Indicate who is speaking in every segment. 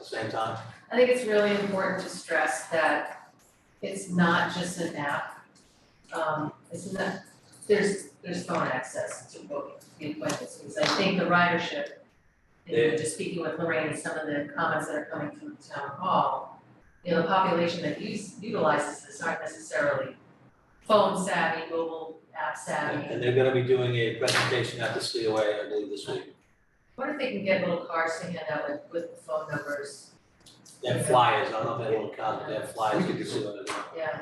Speaker 1: same time?
Speaker 2: I think it's really important to stress that it's not just an app. Um, it's not, there's, there's phone access to book the appointments, because I think the ridership, and we were just speaking with Lorraine and some of the comments that are coming from the town hall, you know, the population that use, utilizes this aren't necessarily phone savvy, mobile app savvy.
Speaker 1: And they're gonna be doing a presentation at the COA, I believe, this week,
Speaker 2: What if they can get little cards to hand out with, with the phone numbers,
Speaker 1: they have flyers, I don't know if they will count, they have flyers, you can see what it is.
Speaker 2: yeah,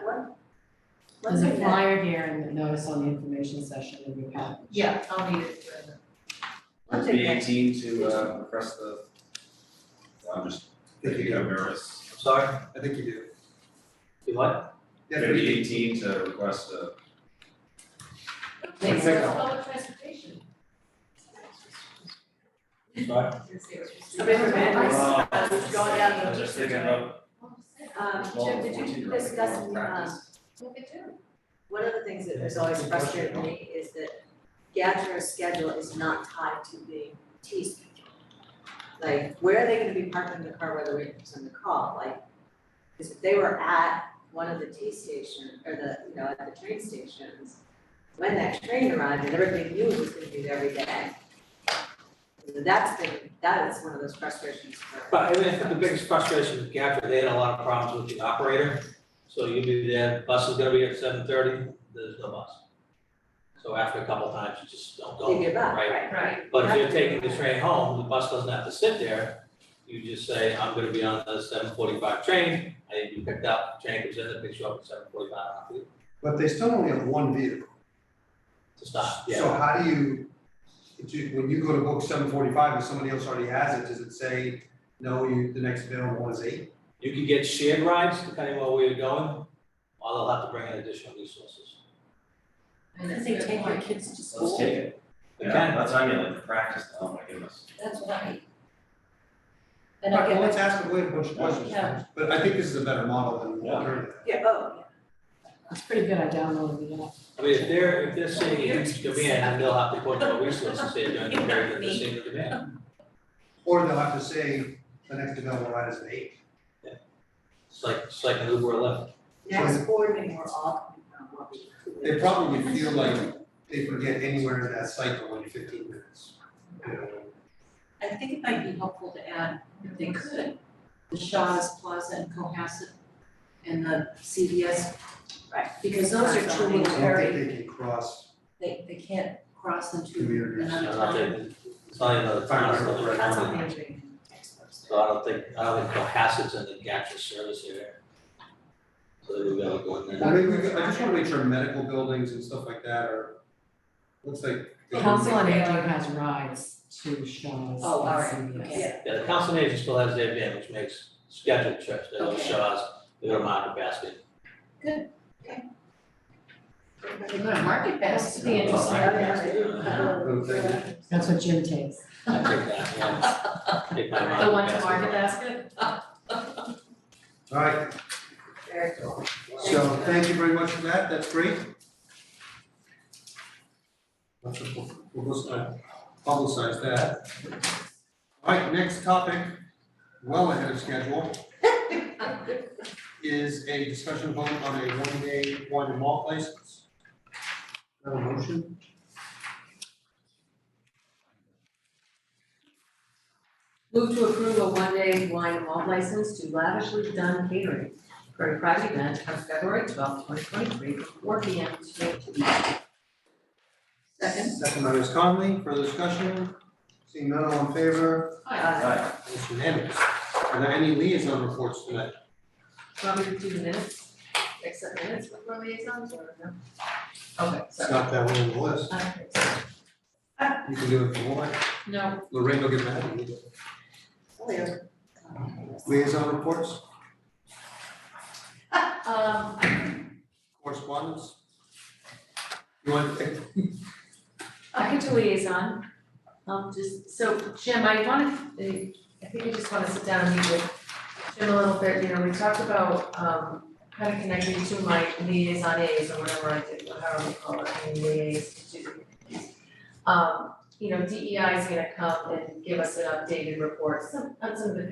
Speaker 3: There's a flyer here and the notice on the information session in your package.
Speaker 2: yeah, I'll need it for the-
Speaker 4: Would it be eighteen to uh request the. I'm just thinking of errors.
Speaker 1: I'm sorry,
Speaker 4: I think you do.
Speaker 1: you what?
Speaker 4: Maybe eighteen to request a.
Speaker 5: Uh,
Speaker 2: They
Speaker 4: Like
Speaker 2: serve
Speaker 4: pickup.
Speaker 2: public transportation.
Speaker 1: Sorry?
Speaker 5: uh, going down
Speaker 1: uh,
Speaker 5: the
Speaker 4: I'm just thinking of
Speaker 5: Um, Jim,
Speaker 4: Well,
Speaker 5: did you
Speaker 4: 14
Speaker 5: discuss,
Speaker 4: right,
Speaker 5: um,
Speaker 4: practice.
Speaker 2: Look at you.
Speaker 5: one of the things that has always frustrated me is that Gadsden's schedule is not tied to the T schedule. Like, where are they gonna be parking the car, whether we send the call, like, cause if they were at one of the T station, or the, you know, at the train stations, when that train arrived and everybody knew it was gonna be there every day. That's been, that is one of those frustrations for.
Speaker 1: But I mean, I think the biggest frustration with Gaffer, they had a lot of problems with the operator. So you'll be there, bus is gonna be at seven thirty, there's no bus. So after a couple times, you just don't go.
Speaker 5: They give up, right?
Speaker 2: Right,
Speaker 1: But if you're taking the train home, the bus doesn't have to sit there. You just say, I'm gonna be on the seven forty-five train, I need to be picked up, train comes in, it picks you up at seven forty-five,
Speaker 6: But they still only have one vehicle.
Speaker 1: to stop,
Speaker 6: So
Speaker 1: yeah.
Speaker 6: how do you, do you- when you go to book seven forty-five and somebody else already has it, does it say, no, you, the next available one is eight?
Speaker 1: You could get shared rides depending on where you're going, or they'll have to bring in additional resources.
Speaker 2: I mean, that's a good point.
Speaker 3: kids to
Speaker 4: Let's take it.
Speaker 1: You
Speaker 4: Yeah,
Speaker 1: can.
Speaker 4: that's how you like practice, oh my goodness.
Speaker 2: That's right. And I
Speaker 6: Well,
Speaker 2: get,
Speaker 6: let's ask them, we have a bunch of questions,
Speaker 2: Yeah.
Speaker 6: but I think this is a better model than
Speaker 4: Yeah.
Speaker 6: alternative.
Speaker 5: Yeah, oh, yeah.
Speaker 3: It's pretty good, I downloaded the app.
Speaker 1: I mean, if they're, if they're seeing a huge demand, then they'll have to put more resources in during the period that they're seeing the demand.
Speaker 6: Or they'll have to say, the next available ride is at eight.
Speaker 1: It's like, it's like an Uber or Lyft.
Speaker 5: Next board meeting, we're all coming from what we.
Speaker 6: They probably feel like they can get anywhere in that cycle in fifteen minutes. you know.
Speaker 7: I think it might be helpful to add, if they could, the Shaw's Plaza and Cohasset and the CVS.
Speaker 5: Right.
Speaker 7: Because those are two
Speaker 6: I
Speaker 7: little
Speaker 6: don't think
Speaker 7: very,
Speaker 6: they can cross
Speaker 7: they, they can't cross into
Speaker 6: communities.
Speaker 1: It's
Speaker 7: another
Speaker 1: not
Speaker 7: town.
Speaker 1: that- it's not even a town, it's another
Speaker 2: that's
Speaker 1: county.
Speaker 2: something interesting.
Speaker 1: So I don't think, I don't think Cohasset's in the Gatra service area. So they would be able to go in
Speaker 6: Well,
Speaker 1: there.
Speaker 6: maybe we, I just wanna make sure medical buildings and stuff like that are, looks like.
Speaker 3: Council on Aging has rides to Shaw's.
Speaker 7: Oh, all right,
Speaker 3: and CVS.
Speaker 7: okay.
Speaker 1: Yeah, the council agent still has their van, which makes scheduled trips, they go to
Speaker 7: Okay.
Speaker 1: Shaw's, they go to Market Basket.
Speaker 2: They go to market basket.
Speaker 7: It'd be interesting.
Speaker 1: Market Basket, uh,
Speaker 3: That's what Jim takes.
Speaker 1: I take that, yeah. Take my
Speaker 2: The one to
Speaker 1: Basket.
Speaker 2: market basket?
Speaker 6: Alright,
Speaker 5: Very cool.
Speaker 6: So thank you very much for that, that's great. Let's just publi- publicize publicize that. Alright, next topic, well ahead of schedule. Is a discussion vote on a one day wine and malt license. Got a motion?
Speaker 2: Move to approve a one-day wine and malt license to lavishly done catering for a private event on February twelfth, twenty twenty-three, from four P M to eight P M. Second.
Speaker 6: Second by Ms. Conley, further discussion? Seeing none, all in favor,
Speaker 2: Hi,
Speaker 5: Uh,
Speaker 4: Right,
Speaker 6: it's unanimous. Are there any liaison reports tonight?
Speaker 2: want me to do the minutes? Accept minutes before liaisons or no? Okay,
Speaker 6: It's
Speaker 2: sorry.
Speaker 6: not that one on the list,
Speaker 2: I don't think so.
Speaker 6: you can do it if you want,
Speaker 2: No,
Speaker 6: Lorraine will get mad at you. Liaison reports,
Speaker 2: Um,
Speaker 6: correspondence. You want to take,
Speaker 2: I could do liaison, um, just, so Jim, I wanna, I think I just wanna sit down and meet with Jim a little bit, you know, we talked about, um, kind of connecting to my liaison A's or whatever I did, or however we call it, I mean, liaise to. E Um, you know, DEI is gonna come and give us an updated report, some, on some of the